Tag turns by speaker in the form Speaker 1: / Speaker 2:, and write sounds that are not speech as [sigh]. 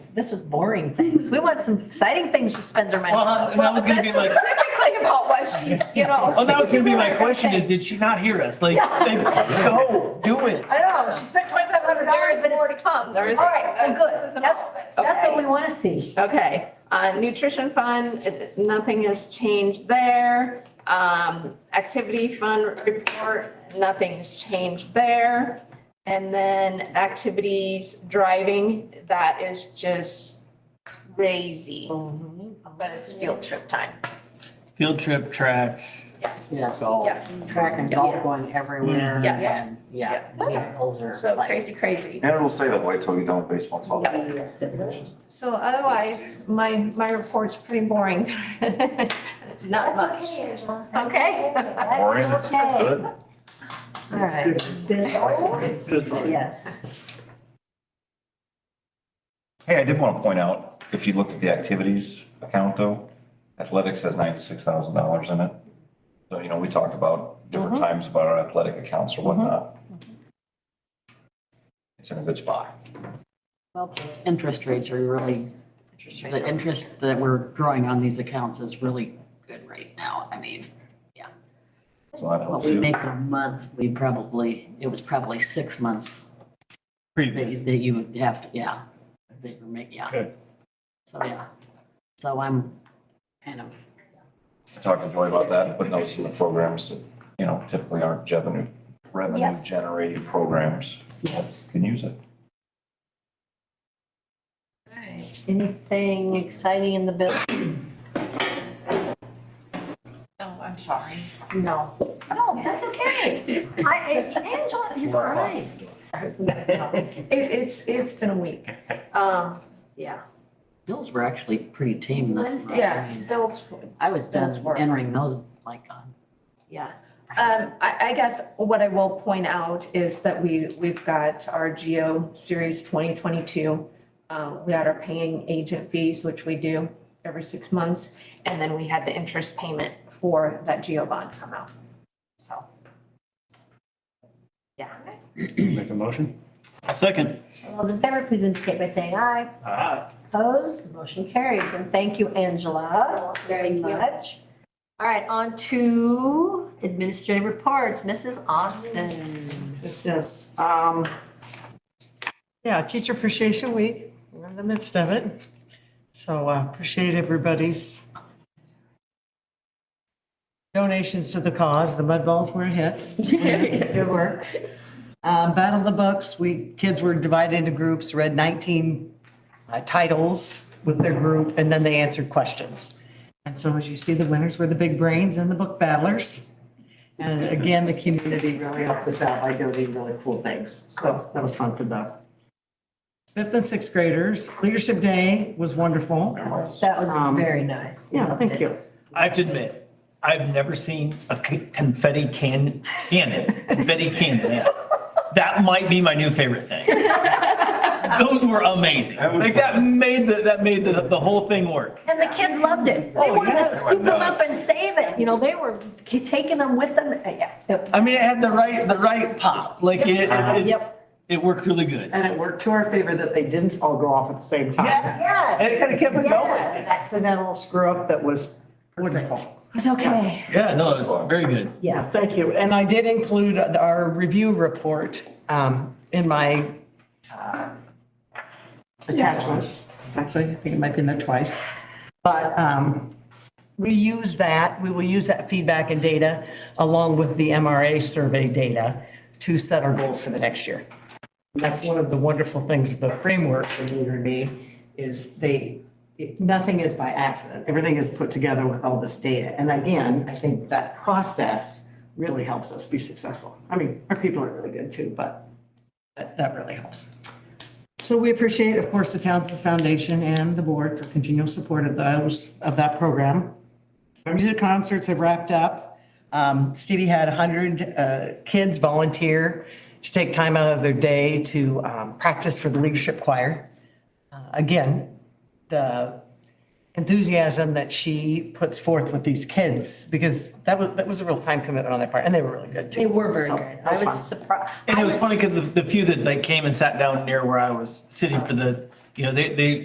Speaker 1: this was boring things. We want some exciting things she spends her money
Speaker 2: Well, uh,
Speaker 1: on.
Speaker 2: and that was gonna
Speaker 3: This
Speaker 2: be
Speaker 3: is
Speaker 2: like,
Speaker 3: typically about what she, you know.
Speaker 2: well, Oh, that was gonna be my question is, did she not hear us? Like, like, go, do it.
Speaker 1: I know, she spent twenty-five hundred
Speaker 3: There
Speaker 1: dollars,
Speaker 3: is
Speaker 1: but
Speaker 3: more
Speaker 1: it's,
Speaker 3: to come. There is.
Speaker 1: all right, well,
Speaker 3: this
Speaker 1: good.
Speaker 3: isn't
Speaker 1: That's,
Speaker 3: all of it.
Speaker 1: that's what
Speaker 3: Okay.
Speaker 1: we want to see.
Speaker 3: Okay, uh, nutrition fund, it- nothing has changed there. Um, activity fund report, nothing's changed there. And then activities driving, that is just crazy, but it's field trip time.
Speaker 2: Field trip, track.
Speaker 4: Yes,
Speaker 3: Yes,
Speaker 4: track and golf going everywhere.
Speaker 3: Yeah.
Speaker 4: and, Yeah, these goals are
Speaker 3: so
Speaker 4: like,
Speaker 3: crazy, crazy.
Speaker 5: And it'll stay that way till you don't baseball talk.
Speaker 3: Yep. So otherwise, my, my report's pretty boring. [laughs] Not much. Okay.
Speaker 5: Boring,
Speaker 1: Okay.
Speaker 5: good.
Speaker 1: All right. Yes.
Speaker 5: Hey, I did want to point out, if you looked at the activities account though, athletics has ninety-six thousand dollars in it. So, you know, we talked about different times about our athletic accounts or whatnot. It's in a good spot.
Speaker 4: well, plus interest rates are really,
Speaker 1: Interest rates
Speaker 4: the
Speaker 1: are-
Speaker 4: interest that we're growing on these accounts is really good right now. I mean,
Speaker 5: So
Speaker 4: what
Speaker 5: that helps
Speaker 4: we
Speaker 5: too.
Speaker 4: make in a month, we probably, it was probably six months that
Speaker 2: Previous.
Speaker 4: you- that you would have to, yeah. That you make, yeah.
Speaker 2: Good.
Speaker 4: So, yeah. So I'm kind of,
Speaker 5: I talked to Joy about that, and putting those in the programs that, you know, typically aren't revenue, revenue
Speaker 1: Yes.
Speaker 5: generating programs. Yes. Can use it.
Speaker 1: Anything exciting in the buildings? Oh, I'm sorry. No. No, that's okay. I, Angela, he's all right.
Speaker 3: It's, it's, it's been a week. Um, yeah,
Speaker 4: bills were actually pretty tame this month.
Speaker 1: Wednesday.
Speaker 3: yeah, those,
Speaker 4: I was
Speaker 3: Bills
Speaker 4: done
Speaker 3: were-
Speaker 4: entering those like on
Speaker 3: yeah. Um, I, I guess what I will point out is that we, we've got our Geo Series twenty twenty-two. Uh, we had our paying agent fees, which we do every six months, and then we had the interest payment for that Geo bond come out, so. Yeah.
Speaker 6: Make a motion?
Speaker 2: Second.
Speaker 1: All those in favor, please indicate by saying aye. Opposed, motion carries. And thank you, Angela, very much. All right, on to administrative reports. Mrs. Austin.
Speaker 7: Yes, yes. Um, yeah, Teacher Appreciation Week, we're in the midst of it. So uh, appreciate everybody's donations to the cause. The mud balls were a hit. [laughs] Good work. Um, Battle of the Books, we, kids were divided into groups, read 19 uh, titles with their group, and then they answered questions. And so as you see, the winners were the big brains and the book battlers. And again, the community really helped us out by doing really cool things. So that's- that was fun for them. Fifth and sixth graders, Leadership Day was wonderful.
Speaker 1: That was very nice.
Speaker 7: Um, Yeah, thank you.
Speaker 2: I have to admit, I've never seen a c- confetti can, cannon, confetti cannon, yeah. That might be my new favorite thing. Those were amazing. Like that made the, that made the, the whole thing work.
Speaker 1: And the kids loved it. They wanted to scoop them up and save it, you know, they were k- taking them with them. Uh, yeah. Yep.
Speaker 2: I mean, it had the right, the right pop, like it, it- it,
Speaker 1: Uh-huh. Yep.
Speaker 2: it worked really good.
Speaker 7: And it worked to our favor that they didn't all go off at the same time. And it
Speaker 1: Yes.
Speaker 7: kind of kept it going.
Speaker 1: Yes.
Speaker 7: An accidental screw up that was wonderful.
Speaker 1: It's okay.
Speaker 2: Yeah, no, it was very good.
Speaker 7: Yeah,
Speaker 1: Yes.
Speaker 7: thank you. And I did include our review report um, in my uh, attachments. Actually, I think it might be in there twice. But um, we use that, we will use that feedback and data along with the MRA survey data to set our goals for the next year. And That's one of the wonderful things of the framework for Leader in Me is they, it- nothing is by accident. Everything is put together with all this data. And again, I think that process really helps us be successful. I mean, our people are really good too, but that, that really helps. So we appreciate, of course, the Townsend Foundation and the board for continual support of those, of that program. Our music concerts have wrapped up. Um, Stevie had 100 uh, kids volunteer to take time out of their day to um, practice for the leadership choir. Uh, Again, the enthusiasm that she puts forth with these kids, because that was, that was a real time commitment on their part, and they were really good too.
Speaker 1: They were very
Speaker 7: So,
Speaker 1: good.
Speaker 7: that
Speaker 1: I
Speaker 7: fun.
Speaker 1: was surprised.
Speaker 2: And it was funny because the, the few that like came and sat down near where I was sitting for the, you know, they, they,